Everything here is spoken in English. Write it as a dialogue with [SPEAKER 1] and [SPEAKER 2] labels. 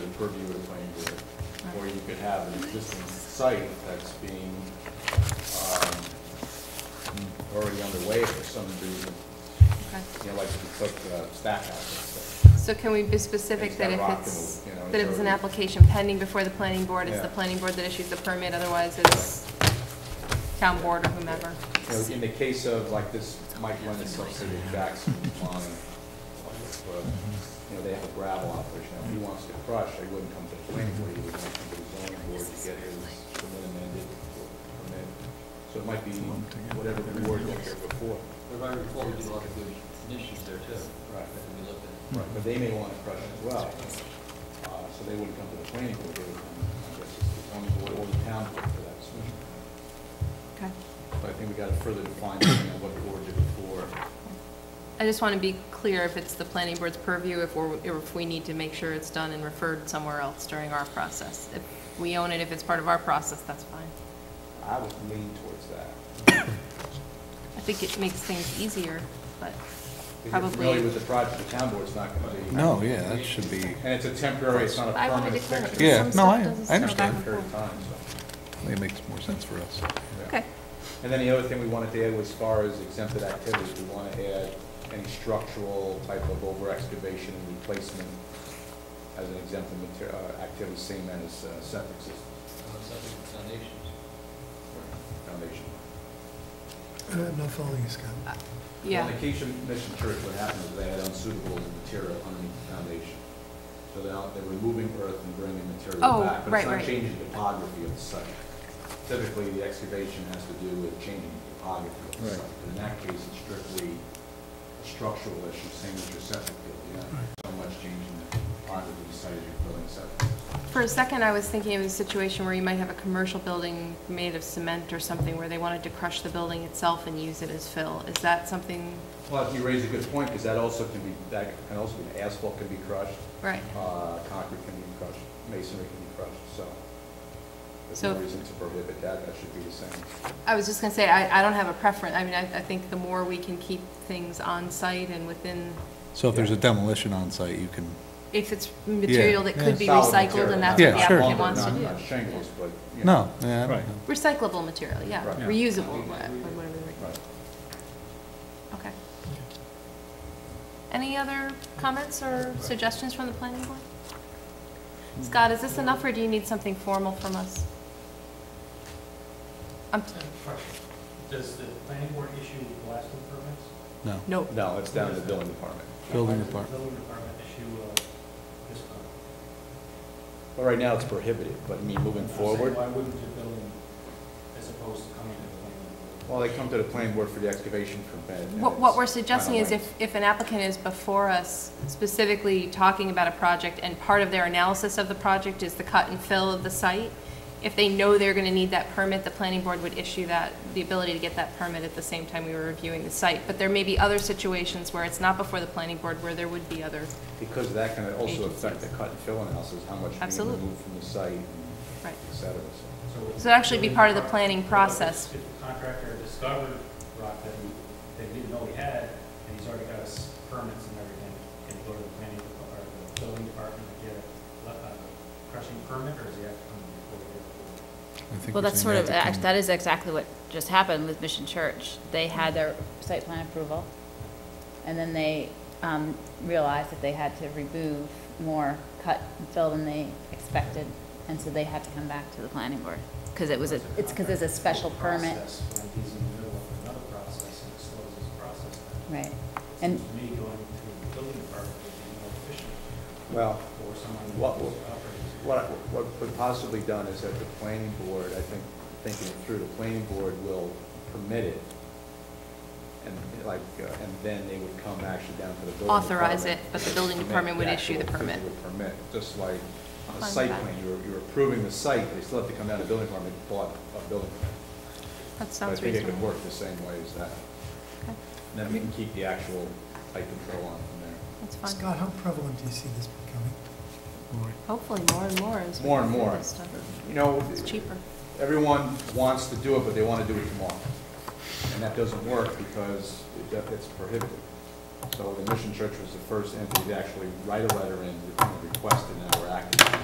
[SPEAKER 1] purview of the planning board. Or you could have an existing site that's being, um, already underway for some reason,
[SPEAKER 2] Okay.
[SPEAKER 1] you know, like, like uh, stack house and stuff.
[SPEAKER 2] So can we be specific
[SPEAKER 1] It's
[SPEAKER 2] that
[SPEAKER 1] got
[SPEAKER 2] if
[SPEAKER 1] rock
[SPEAKER 2] it's,
[SPEAKER 1] and, you know,
[SPEAKER 2] that
[SPEAKER 1] it's
[SPEAKER 2] if it's an
[SPEAKER 1] already-
[SPEAKER 2] application pending before the planning board, it's
[SPEAKER 1] Yeah.
[SPEAKER 2] the planning board that issues the permit, otherwise it's town board or whomever?
[SPEAKER 1] You know, in the case of like this, Mike Lynn is subsidizing Jackson Line, but, you know, they have a gravel operation. Now, If he wants to crush, they wouldn't come to the planning board, he would want to come to the zoning board to get his permit amended, permit. So it might be whatever the board got here before.
[SPEAKER 3] If I recall, we did a lot of good initiatives there too.
[SPEAKER 1] Right.
[SPEAKER 3] That could be looked at.
[SPEAKER 1] Right. But they may want to crush as well. Uh, So they wouldn't come to the planning board, they would come, I guess, to the zoning board or the town board for that decision.
[SPEAKER 2] Okay.
[SPEAKER 1] But I think we got to further define depending on what the board did before.
[SPEAKER 2] I just want to be clear if it's the planning board's purview, if we're, if we need to make sure it's done and referred somewhere else during our process. If we own it, if it's part of our process, that's fine.
[SPEAKER 1] I would lean towards that.
[SPEAKER 2] I think it makes things easier, but
[SPEAKER 1] Because
[SPEAKER 2] probably.
[SPEAKER 1] really with the project, the town board's not going to be.
[SPEAKER 4] No, yeah, that should be,
[SPEAKER 1] And it's a temporary, it's not a
[SPEAKER 2] I want to
[SPEAKER 1] permanent
[SPEAKER 2] declare it.
[SPEAKER 1] fixture.
[SPEAKER 4] Yeah,
[SPEAKER 2] Some
[SPEAKER 4] no,
[SPEAKER 2] stuff
[SPEAKER 4] I-
[SPEAKER 2] doesn't
[SPEAKER 4] I
[SPEAKER 2] go
[SPEAKER 1] It's a
[SPEAKER 2] back and
[SPEAKER 4] understand.
[SPEAKER 1] temporary
[SPEAKER 2] forth.
[SPEAKER 1] time, so,
[SPEAKER 4] it makes more sense for us.
[SPEAKER 1] yeah.
[SPEAKER 2] Okay,
[SPEAKER 1] And then the other thing we wanted to add was as far as exempted activities, we want to add any structural type of over excavation and replacement as an exempted mater, uh, activity, same as uh, septic systems,
[SPEAKER 3] Uh, Something with foundations.
[SPEAKER 1] or foundation.
[SPEAKER 5] I'm Uh, not following you, Scott.
[SPEAKER 2] yeah.
[SPEAKER 1] Well, In the Acacia Mission Church, what happened is they had unsuitable material underneath the foundation. So they're, out- they're removing earth and bringing material
[SPEAKER 2] Oh,
[SPEAKER 1] back.
[SPEAKER 2] right,
[SPEAKER 1] But
[SPEAKER 2] right.
[SPEAKER 1] it's not changing the topography of the site. Typically, the excavation has to do with changing the topography of the
[SPEAKER 4] Right.
[SPEAKER 1] site. But in that case, it's strictly a structural issue, same as your septic field. You're not so much changing the topography of the site as you're building septic.
[SPEAKER 2] For a second, I was thinking of a situation where you might have a commercial building made of cement or something where they wanted to crush the building itself and use it as fill. Is that something,
[SPEAKER 1] Well, you raise a good point, because that also can be, that can also be, asphalt can be crushed,
[SPEAKER 2] right?
[SPEAKER 1] Uh, concrete can be crushed, masonry can be crushed, so there's
[SPEAKER 2] So-
[SPEAKER 1] no reason to prohibit that, that should be the same.
[SPEAKER 2] I was just gonna say, I, I don't have a preference. I mean, I, I think the more we can keep things on site and within,
[SPEAKER 4] So if there's a demolition on site, you can,
[SPEAKER 2] if it's material that could be
[SPEAKER 1] Solid
[SPEAKER 2] recycled
[SPEAKER 1] material,
[SPEAKER 2] and that's
[SPEAKER 4] Yeah,
[SPEAKER 2] what the
[SPEAKER 4] sure.
[SPEAKER 2] applicant
[SPEAKER 1] lumber,
[SPEAKER 2] wants to
[SPEAKER 1] not-
[SPEAKER 2] do.
[SPEAKER 1] Not shingles, but, you know.
[SPEAKER 4] no, yeah, I don't
[SPEAKER 6] Right.
[SPEAKER 4] know.
[SPEAKER 2] Recyclable material, yeah,
[SPEAKER 1] Right.
[SPEAKER 6] Yeah.
[SPEAKER 2] reusable, wha- whatever, the word-
[SPEAKER 1] Right.
[SPEAKER 2] okay. Any other comments or suggestions from the planning board? Scott, is this enough, or do you need something formal from us? I'm, t-
[SPEAKER 7] Does the planning board issue blasting permits?
[SPEAKER 4] No,
[SPEAKER 2] no,
[SPEAKER 1] No, it's down to the building department.
[SPEAKER 4] Building
[SPEAKER 7] Why does the
[SPEAKER 4] department.
[SPEAKER 7] Building department issue uh, this permit?
[SPEAKER 1] But right now, it's prohibited, but I mean, moving
[SPEAKER 7] I'm saying,
[SPEAKER 1] forward,
[SPEAKER 7] Why wouldn't the building, as opposed to coming to the planning board?
[SPEAKER 1] well, they come to the planning board for the excavation permit. and
[SPEAKER 2] What,
[SPEAKER 1] it's
[SPEAKER 2] what we're suggesting
[SPEAKER 1] final
[SPEAKER 2] is
[SPEAKER 1] length.
[SPEAKER 2] if, if an applicant is before us specifically talking about a project and part of their analysis of the project is the cut and fill of the site, if they know they're gonna need that permit, the planning board would issue that, the ability to get that permit at the same time we were reviewing the site. But there may be other situations where it's not before the planning board where there would be other,
[SPEAKER 1] Because that can also affect the
[SPEAKER 2] Agencies.
[SPEAKER 1] cut and fill analysis, how much being
[SPEAKER 2] Absolutely.
[SPEAKER 1] removed from the site, and
[SPEAKER 2] right?
[SPEAKER 1] et cetera, so.
[SPEAKER 7] would
[SPEAKER 2] So it'd actually be
[SPEAKER 7] the
[SPEAKER 2] part of the
[SPEAKER 7] building
[SPEAKER 2] planning
[SPEAKER 7] department-
[SPEAKER 2] process.
[SPEAKER 7] If the contractor discovered rock that he- that he didn't know he had, and he's already got his permits and everything, can he go to the planning, dep- or the building department to get a le- a crushing permit, or does he have to come before he gets the?
[SPEAKER 4] I think
[SPEAKER 8] Well,
[SPEAKER 4] we're
[SPEAKER 8] that's
[SPEAKER 4] saying
[SPEAKER 8] sort
[SPEAKER 4] they
[SPEAKER 8] of,
[SPEAKER 4] have to
[SPEAKER 8] act-
[SPEAKER 4] come-
[SPEAKER 8] that is exactly what just happened with Mission Church. They had their site plan approval, and then they um, realized that they had to remove more cut and fill than they expected, and so they had to come back to the planning board, because it was, a it's because it's a special permit.
[SPEAKER 7] Process, When he's in the middle of another process and it slows his process down.
[SPEAKER 8] Right. And-
[SPEAKER 7] Seems to Me going through the building department would be more efficient
[SPEAKER 1] Well,
[SPEAKER 7] for someone who
[SPEAKER 1] What-
[SPEAKER 7] operates.
[SPEAKER 1] What, I- what would possibly done is that the planning board, I think, thinking it through, the planning board will permit it. And like, uh, and then they would come actually down to the building department.
[SPEAKER 2] Authorize it, but the building
[SPEAKER 1] to make
[SPEAKER 2] department would issue the
[SPEAKER 1] actual
[SPEAKER 2] permit.
[SPEAKER 1] physical Permit, just like on
[SPEAKER 2] I'm
[SPEAKER 1] a
[SPEAKER 2] fine
[SPEAKER 1] site
[SPEAKER 2] with that.
[SPEAKER 1] plan, you're, you're approving the site, they still have to come down to the building department, and bought a building. permit.
[SPEAKER 2] That
[SPEAKER 1] But I
[SPEAKER 2] sounds
[SPEAKER 1] think it
[SPEAKER 2] reasonable.
[SPEAKER 1] could work the same way as that.
[SPEAKER 2] Okay,
[SPEAKER 1] And then we can keep the actual site control on from there.
[SPEAKER 2] That's fine.
[SPEAKER 5] Scott, how prevalent do you see this becoming?
[SPEAKER 2] Hopefully more and more as we
[SPEAKER 1] More
[SPEAKER 2] go
[SPEAKER 1] and
[SPEAKER 2] through
[SPEAKER 1] more.
[SPEAKER 2] this stuff.
[SPEAKER 1] You know.
[SPEAKER 2] It's cheaper.
[SPEAKER 1] everyone wants to do it, but they want to do it tomorrow. And that doesn't work because it def- it's prohibited. So the Mission Church was the first entity to actually write a letter in, you know, request, and now we're acting.